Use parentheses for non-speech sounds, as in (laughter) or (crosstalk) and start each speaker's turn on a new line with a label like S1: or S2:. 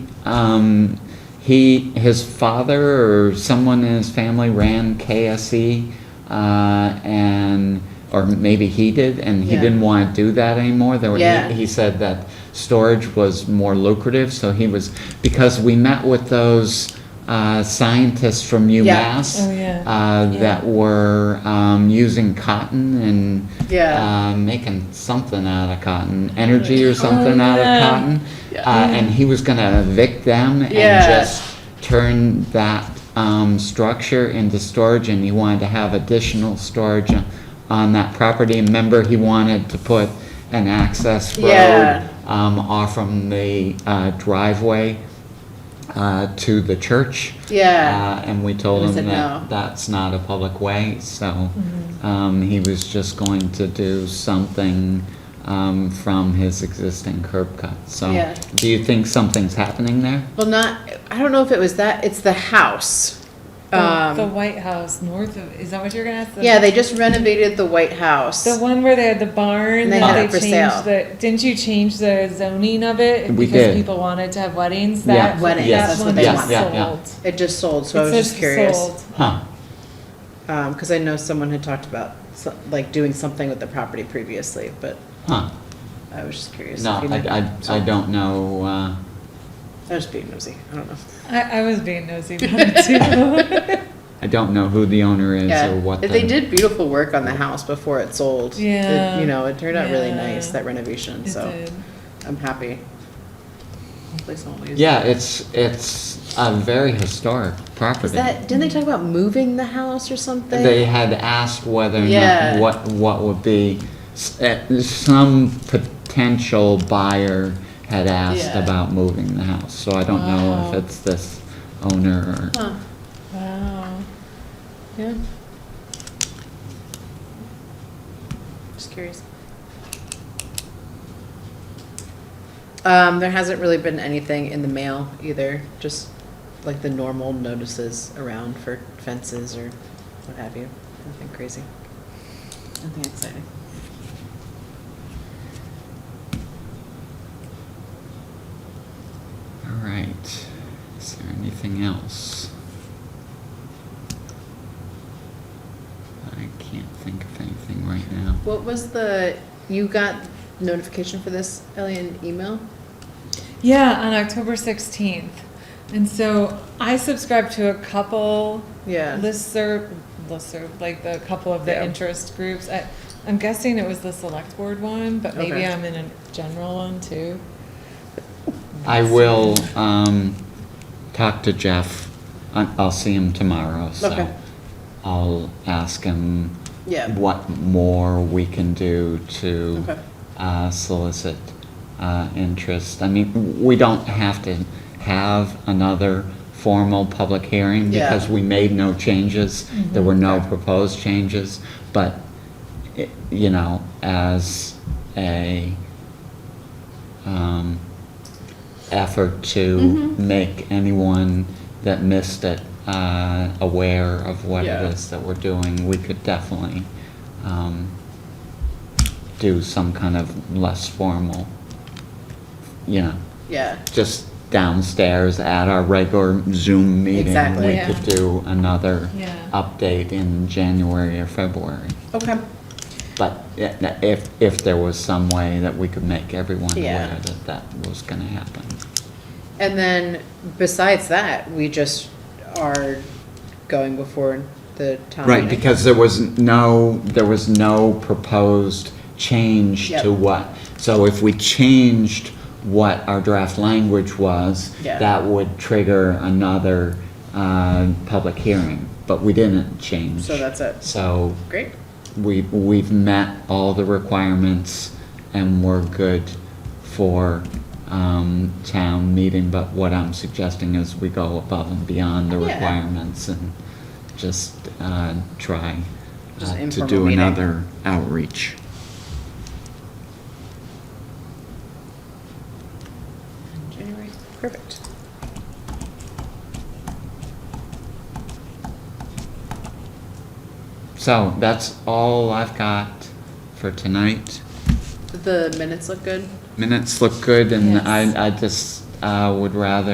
S1: Um, he, his father or someone in his family ran KSE, uh, and, or maybe he did, and he
S2: Yeah.
S1: didn't want to do that anymore. There were- he-
S2: Yeah.
S1: He said that storage was more lucrative, so he was, because we met with those, uh, scientists from UMass.
S3: Oh, yeah.
S1: Uh, that were, um, using cotton and,
S2: Yeah. Oh,
S1: uh, making something out of cotton, energy or something out
S3: yeah.
S1: of cotton. Uh, and he was gonna evict them and
S2: Yeah.
S1: just turn that, um, structure into storage and he wanted to have additional storage on- on that property. And Remember, he wanted to put an access
S2: Yeah.
S1: road, um, off from the, uh, driveway, uh, to the church.
S2: Yeah.
S1: Uh, And we told
S2: And we
S1: him
S2: said
S1: that
S2: no. Mm-hmm.
S1: that's not a public way, so, um, he was just going to do something, um, from his existing curb cut, so.
S2: Yeah.
S1: Do you think something's happening there?
S2: Well, not, I don't know if it was that, it's the house.
S3: The, the
S2: Um,
S3: White House north of, is that what you're gonna ask? The-
S2: yeah, they just renovated the White House.
S3: The one where they had the barn,
S2: And they
S3: that
S2: had
S3: they
S2: it for
S3: changed
S2: sale.
S3: the, didn't you change the zoning of it?
S1: We
S3: Because
S1: did.
S3: people wanted to have weddings,
S1: Yeah.
S3: that,
S2: Weddings,
S3: that
S2: that's what
S3: one
S2: they
S3: is
S2: want. Yeah,
S1: yeah, yeah.
S3: sold.
S2: It just sold, so I
S3: It
S2: was
S3: says
S2: just curious.
S3: sold.
S1: Huh,
S2: Um, cause I know someone had talked about, so- like, doing something with the property previously, but
S1: huh.
S2: I was just curious.
S1: No,
S2: if you
S1: I,
S2: knew.
S1: I, I don't know, uh,
S2: I was being nosy, I don't know.
S3: I, I was being nosy about it too.
S1: I don't know who the owner is
S2: Yeah,
S1: or what the.
S2: They did beautiful work on the house before it sold. It-
S3: Yeah.
S2: You know, it turned out really
S3: Yeah.
S2: nice, that renovation,
S3: It
S2: (laughs) so
S3: did.
S2: I'm happy. Hopefully someone will use it.
S1: Yeah, it's, it's a very historic property.
S2: Is that, didn't they talk about moving the house or something?
S1: They had asked whether or
S2: Yeah.
S1: not, what, what would be, s- eh, some potential buyer had asked
S2: Yeah.
S1: about moving the house, so I don't know
S3: Wow.
S1: if it's this owner or.
S2: Huh,
S3: Wow.
S2: yeah. Just curious. Um, there hasn't really been anything in the mail either, just like the normal notices around for fences or what have you. Nothing crazy. Nothing exciting.
S1: All right, is there anything else? I can't think of anything right now.
S2: What was the, you got notification for this, Ellie, in email?
S3: Yeah, on October 16th. And so I subscribe to a couple
S2: Yeah.
S3: listserv, listserv, like the couple of the
S2: Yeah.
S3: interest groups. I, I'm guessing it was the select board one, but maybe
S2: Okay.
S3: I'm in a general one too.
S1: I will, um, talk to Jeff. I- I'll see him tomorrow,
S2: Okay.
S1: so I'll ask him
S2: Yeah.
S1: what more we can do to
S2: Okay.
S1: uh, solicit uh, interest. I mean, we don't have to have another formal public hearing
S2: Yeah.
S1: because we made no changes. There were no proposed changes, but, i- you know, as a, um, effort to
S2: Mm-hmm.
S1: make anyone that missed it uh, aware of what
S2: Yeah.
S1: it is that we're doing, we could definitely um, do some kind of less formal, you know,
S2: Yeah,
S1: just downstairs at our regular Zoom meeting.
S2: Exactly.
S1: We
S3: Yeah.
S1: could do another
S3: Yeah.
S1: update in January or February.
S2: okay.
S1: But i- if, if there was some way that we could make everyone
S2: Yeah.
S1: aware that that was going to happen.
S2: And then besides that, we just are going before the town
S1: Right,
S2: meeting.
S1: because there was no, there was no proposed change
S2: Yep.
S1: to what. So if we changed what our draft language was,
S2: Yeah.
S1: that would trigger another uh, public hearing, but we didn't change.
S2: So that's it.
S1: So
S2: Great,
S1: we, we've met all the requirements and we're good for um, town meeting, but what I'm suggesting is we go above and beyond the
S2: Yeah.
S1: requirements and just uh, try
S2: Just
S1: uh, to
S2: informal
S1: do
S2: meeting.
S1: another outreach.
S2: January, perfect.
S1: So that's all I've got for tonight.
S2: Did the minutes look good?
S1: Minutes look good and
S3: Yes.
S1: I, I just uh, would rather